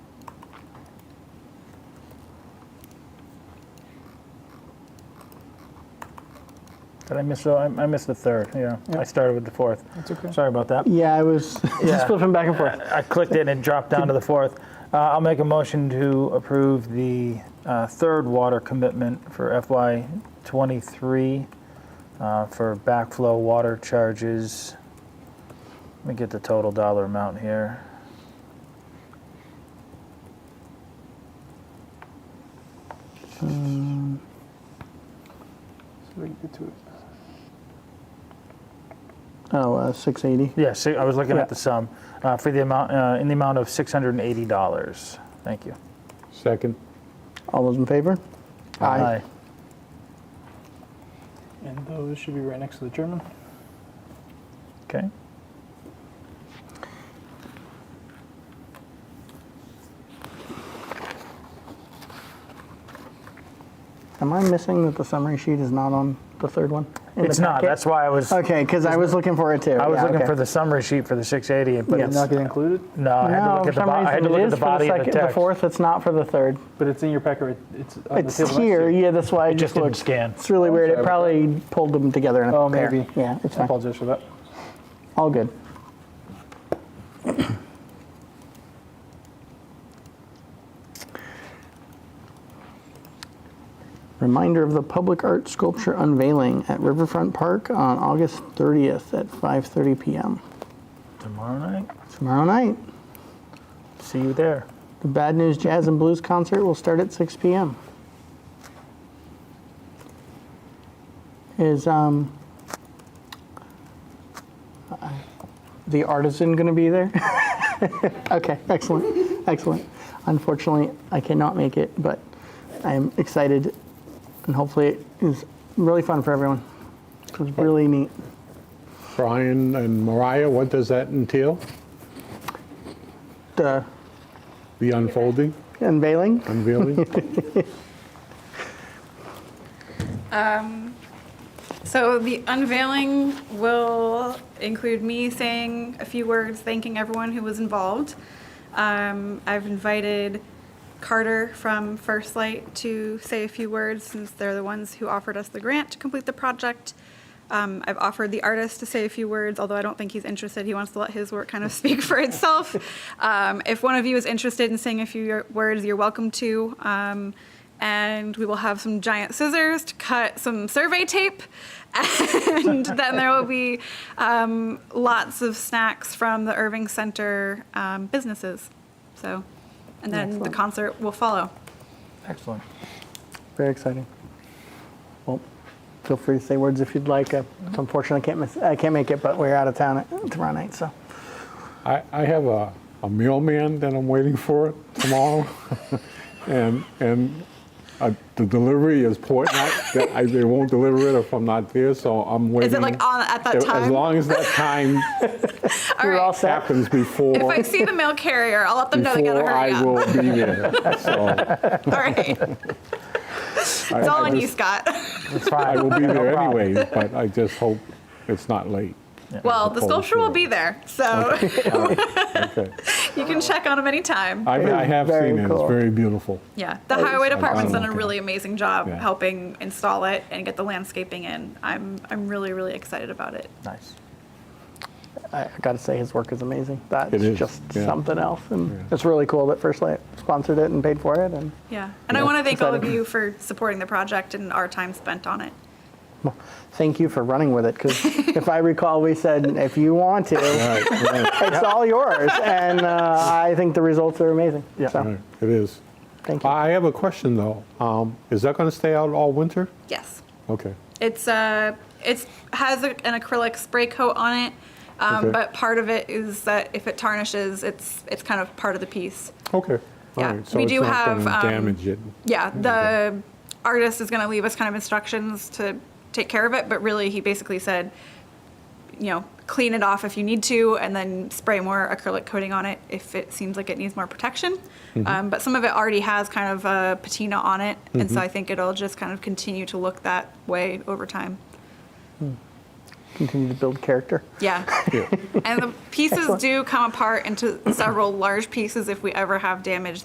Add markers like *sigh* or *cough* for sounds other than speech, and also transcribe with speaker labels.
Speaker 1: Did I miss? the- I I missed the third. Yeah, I started with the fourth. That's okay. Sorry about that.
Speaker 2: Yeah, I was
Speaker 1: Yeah.
Speaker 2: just flipping back and forth.
Speaker 1: I clicked it and it dropped down to the fourth. Uh, I'll make a motion to approve the uh, third water commitment for FY '23 uh, for backflow water charges. Let me get the total dollar amount here.
Speaker 2: Um, So we can get to it. Oh, uh, 680.
Speaker 1: Yeah, so I was looking
Speaker 2: Yeah.
Speaker 1: at the sum uh, for the amount uh, in the amount of six hundred and eighty dollars. Thank you.
Speaker 3: Second.
Speaker 2: All those in favor?
Speaker 1: Aye.
Speaker 4: And those should be right next to the German.
Speaker 1: Okay.
Speaker 2: Am I missing that the summary sheet is not on the third one? In the
Speaker 1: It's not.
Speaker 2: packet? Oh,
Speaker 1: That's why I was.
Speaker 2: Okay, because I was looking for it too.
Speaker 1: I was
Speaker 2: Yeah,
Speaker 1: looking
Speaker 2: okay.
Speaker 1: for the summary sheet for the 680, but
Speaker 2: Yes.
Speaker 1: it's,
Speaker 4: Not get included,
Speaker 1: no, I had to
Speaker 2: No,
Speaker 1: look
Speaker 2: for
Speaker 1: at the,
Speaker 2: some
Speaker 1: bo- I had
Speaker 2: reason
Speaker 1: to
Speaker 2: it
Speaker 1: look at
Speaker 2: is
Speaker 1: the
Speaker 2: for the
Speaker 1: body of
Speaker 2: second,
Speaker 1: the
Speaker 2: the
Speaker 1: text.
Speaker 2: fourth, it's not for the third.
Speaker 4: but it's in your packet. right- It's on
Speaker 2: It's
Speaker 4: Oh, the table next
Speaker 2: here,
Speaker 4: to you.
Speaker 2: yeah, that's why I
Speaker 1: It just
Speaker 2: just
Speaker 1: didn't
Speaker 2: looked.
Speaker 1: scan.
Speaker 2: It's really weird, it
Speaker 4: Sorry about
Speaker 2: probably pulled them together in a
Speaker 4: Oh,
Speaker 2: pair.
Speaker 4: maybe.
Speaker 2: Yeah, it's
Speaker 4: I
Speaker 2: fine,
Speaker 4: apologize for that.
Speaker 2: all good. Reminder of the public art sculpture unveiling at Riverfront Park on August 30th at 5:30 PM.
Speaker 1: Tomorrow night,
Speaker 2: Tomorrow night,
Speaker 1: see you there.
Speaker 2: the Bad News Jazz and Blues concert will start at 6 p.m. Is um, the artisan going to be there? *laughs* okay, excellent, excellent. Unfortunately, I cannot make it, but I am excited, and hopefully, it is really fun for everyone. It was really neat.
Speaker 3: Brian and Mariah, what does that entail?
Speaker 2: The
Speaker 3: The unfolding,
Speaker 2: unveiling.
Speaker 3: unveiling?
Speaker 5: *laughs* So the unveiling will include me saying a few words, thanking everyone who was involved. Um, I've invited Carter from First Light to say a few words since they're the ones who offered us the grant to complete the project. Um, I've offered the artist to say a few words, although I don't think he's interested. He wants to let his work kind of *laughs* speak for itself. Um, if one of you is interested in saying a few words, you're welcome to. Um, and we will have some giant scissors to cut some survey tape. And *laughs* then there will be um, lots of snacks from the Irving Center um, businesses. So, and then the
Speaker 2: Excellent.
Speaker 5: concert will follow.
Speaker 1: Excellent.
Speaker 2: Very exciting. Well, feel free to say words if you'd like. Uh, It's unfortunate I can't miss, I can't make it, but we're out of town at- tomorrow night, so.
Speaker 3: I, I have a, a mailman that I'm waiting for tomorrow, *laughs* and and uh, the delivery is Portland. that I, they won't deliver it if I'm not there, so I'm waiting.
Speaker 5: Is it like on at that
Speaker 3: As-
Speaker 5: time?
Speaker 3: As long as
Speaker 5: *laughs*
Speaker 3: that time
Speaker 5: All
Speaker 2: We're all
Speaker 5: right.
Speaker 2: set.
Speaker 3: happens before.
Speaker 5: If I see the mail carrier, I'll let them know they gotta
Speaker 3: before
Speaker 5: hurry
Speaker 3: I
Speaker 5: *laughs* up. All
Speaker 3: will be there. So *laughs*
Speaker 5: right. It's all on you, Scott. *laughs*
Speaker 1: It's
Speaker 3: I
Speaker 1: fine.
Speaker 3: will be there anyway, but I just hope it's not
Speaker 5: *laughs*
Speaker 3: late. Uh,
Speaker 5: Well, the sculpture will be there, so
Speaker 3: Okay.
Speaker 5: *laughs* you can check on them anytime.
Speaker 3: I, I have
Speaker 2: Very
Speaker 3: seen it.
Speaker 2: cool.
Speaker 3: It's very beautiful.
Speaker 5: Yeah, the highway department's done a
Speaker 3: okay.
Speaker 5: really amazing job
Speaker 3: Yeah.
Speaker 5: helping install it and get the landscaping in. I'm, I'm really, really excited about it.
Speaker 1: Nice.
Speaker 2: I, I gotta say, his work is amazing. That's
Speaker 3: It is,
Speaker 2: just
Speaker 3: yeah.
Speaker 2: something else. And it's really cool that First Light sponsored it and paid for it. And
Speaker 5: Yeah, and I want to thank all of
Speaker 2: exciting.
Speaker 5: you for supporting the project and our time spent on it.
Speaker 2: thank you for running with it, *laughs* because if I recall, we said, if you want to,
Speaker 3: Right,
Speaker 2: *laughs*
Speaker 3: right,
Speaker 2: it's all yours. And uh, I think the results are amazing.
Speaker 1: Yeah.
Speaker 2: So,
Speaker 3: right. It is.
Speaker 2: thank you.
Speaker 3: I have a question though. Um, is that going to stay out all winter?
Speaker 5: Yes.
Speaker 3: Okay.
Speaker 5: It's uh, it's has a, an acrylic spray coat on it, um,
Speaker 3: Okay.
Speaker 5: but part of it is that if it tarnishes, it's it's kind of part of the piece.
Speaker 3: Okay. All
Speaker 5: Yeah,
Speaker 3: right. So
Speaker 5: we
Speaker 3: it's
Speaker 5: do
Speaker 3: not
Speaker 5: have,
Speaker 3: going to
Speaker 5: um,
Speaker 3: damage it.
Speaker 5: Yeah, the artist is going to leave us kind of instructions to take care of it, but really he basically said, you know, clean it off if you need to, and then spray more acrylic coating on it if it seems like it needs more protection. Um, but some of it already has kind of a patina on it, and so I think it'll just kind of continue to look that way over time.
Speaker 2: Continue to build character.
Speaker 5: Yeah.
Speaker 3: Yeah.
Speaker 5: and the pieces do come apart into several large pieces if we ever have damage